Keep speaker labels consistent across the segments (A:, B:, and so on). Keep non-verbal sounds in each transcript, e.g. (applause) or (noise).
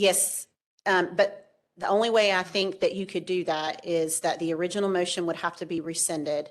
A: Yes, um, but the only way I think that you could do that is that the original motion would have to be rescinded.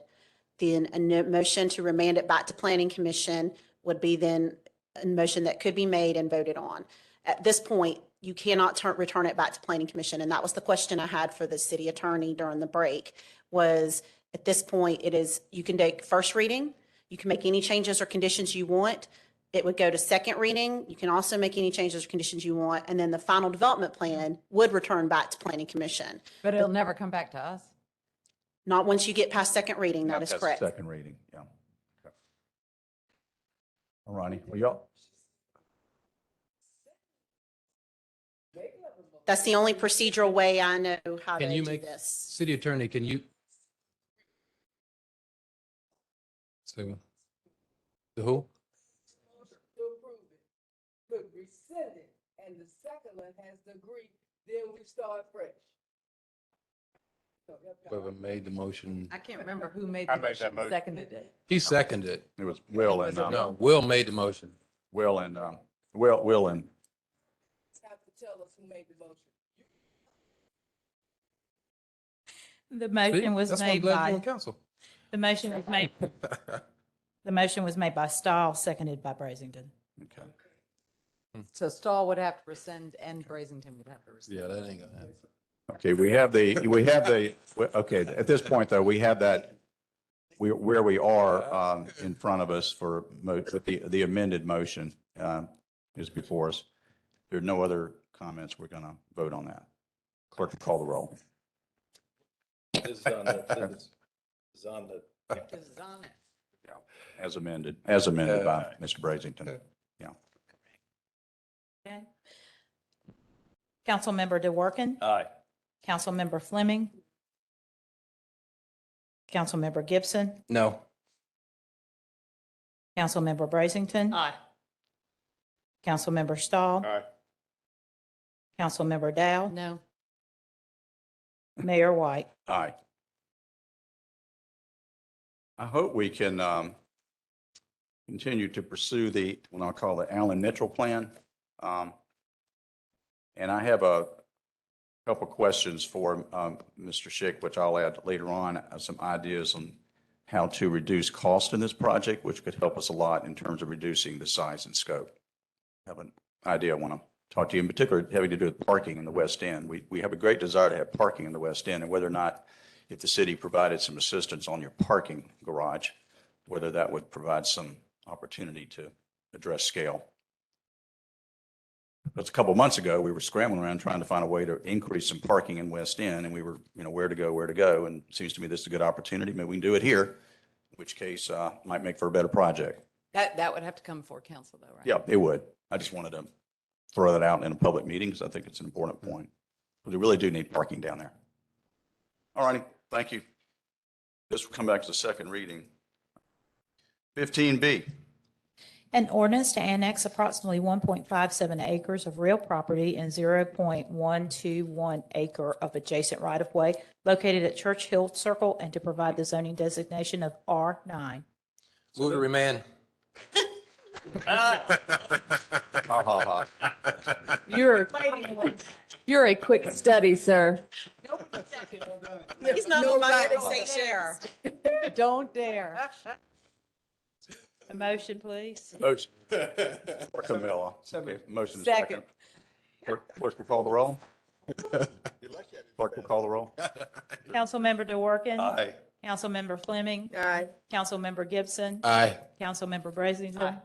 A: Then a no- motion to remand it back to planning commission would be then a motion that could be made and voted on. At this point, you cannot turn, return it back to planning commission, and that was the question I had for the city attorney during the break, was at this point, it is, you can take first reading, you can make any changes or conditions you want, it would go to second reading. You can also make any changes or conditions you want. And then the final development plan would return back to planning commission.
B: But it'll never come back to us.
A: Not once you get past second reading, that
C: Not
A: is
C: past
A: correct.
D: Second reading, yeah. Okay. All righty, well, y'all,
A: That's the only procedural way I know how to
E: Can you
A: do
E: make,
A: this.
E: city attorney, can you? So, the who?
F: motion to approve it, but rescind it, and the second one has to agree, then we start fresh. So, that's how I-
E: Whoever made the motion.
B: I can't remember who made
C: I
B: the
C: made that motion.
B: motion, seconded it.
E: He seconded it.
D: it was Will and, um,
E: No, Will made the motion.
D: Will and, um, Will, Will and,
F: You Have to tell us who made the motion.
G: The
E: See?
G: motion was
E: That's why I'm
G: made
E: glad you're on
G: by,
E: Council.
G: the motion was
E: (laughs)
G: made, the motion was made by Stahl, seconded by Brazington.
D: okay.
B: So Stahl would have to rescind and Brazington would have to rescind.
E: Yeah, that ain't gonna happen.
D: Okay, we have the, we have the, we- okay, at this point, though, we have that, we, where we are, um, in front of us for mo, with the, the amended motion, um, is before us. There are no other comments. We're gonna vote on that. Clerk, call the roll.
H: This is on the, this is- this is on the
B: This is on it.
D: As amended, as amended by Mr. Brazington.
G: Councilmember DeWorke,
H: Aye.
G: Councilmember Fleming, Councilmember Gibson,
E: No.
G: Councilmember Brazington,
B: Aye.
G: Councilmember Stahl,
C: Aye.
G: Councilmember Dow,
B: No.
G: Mayor White.
D: Aye. I hope we can um, continue to pursue the, what I'll call the Allen Mitchell Plan. Um, And I have a couple questions for um, Mr. Schick, which I'll add later on, uh, some ideas on how to reduce cost in this project, which could help us a lot in terms of reducing the size and scope. Have an idea I want to talk to you in particular, having to do with parking in the West End. We, we have a great desire to have parking in the West End, and whether or not, if the city provided some assistance on your parking garage, whether that would provide some opportunity to address scale. That's a couple months ago, we were scrambling around trying to find a way to increase some parking in West End, and we were, you know, where to go, where to go, and it seems to me this is a good opportunity. Maybe we can do it here, in which case, uh, might make for a better project.
B: That, that would have to come before council though, right?
D: Yeah, it would. I just wanted to throw that out in a public meeting because I think it's an important point. We really do need parking down there. All righty, thank you. This will come back to the second reading. Fifteen B,
G: An ordinance to annex approximately 1.57 acres of real property and 0.121 acre of adjacent right-of-way located at Church Hill Circle and to provide the zoning designation of R9.
E: Move to remand.
D: ha ha ha.
B: You're, you're a quick study, sir.
A: He's not
B: No
A: on my
B: right.
A: state share.
B: Don't dare.
G: A motion, please.
D: Motion. For Camilla. Okay, Motion is
B: Second.
D: second. Clerk clerk will call the roll. Clerk will call the roll.
G: Councilmember DeWorke.
D: Aye.
G: Councilmember Fleming.
B: Aye.
G: Councilmember Gibson.
E: Aye.
G: Councilmember Brazington.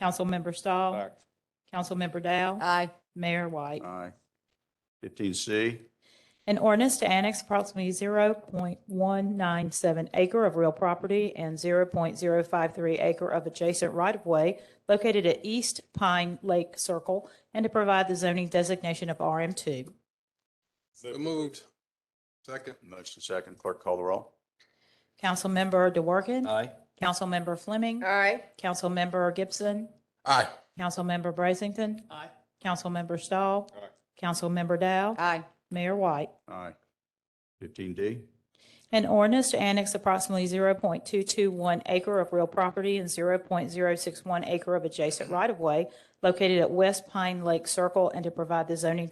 G: Councilmember Stahl. Councilmember Dow.
B: Aye.
G: Mayor White.
D: Aye. Fifteen C,
G: An ordinance to annex approximately 0.197 acre of real property and 0.053 acre of adjacent right-of-way located at East Pine Lake Circle and to provide the zoning designation of RM2.
E: So moved. Second.
D: motion second. Clerk call the roll.
G: Councilmember DeWorke.
E: Aye.
G: Councilmember Fleming.
B: Aye.
G: Councilmember Gibson.
E: Aye.
G: Councilmember Brazington.
B: Aye.
G: Councilmember Stahl. Councilmember Dow.
B: Aye.
G: Mayor White.
D: Aye. Fifteen D.
G: An ordinance to annex approximately 0.221 acre of real property and 0.061 acre of adjacent right-of-way located at West Pine Lake Circle and to provide the zoning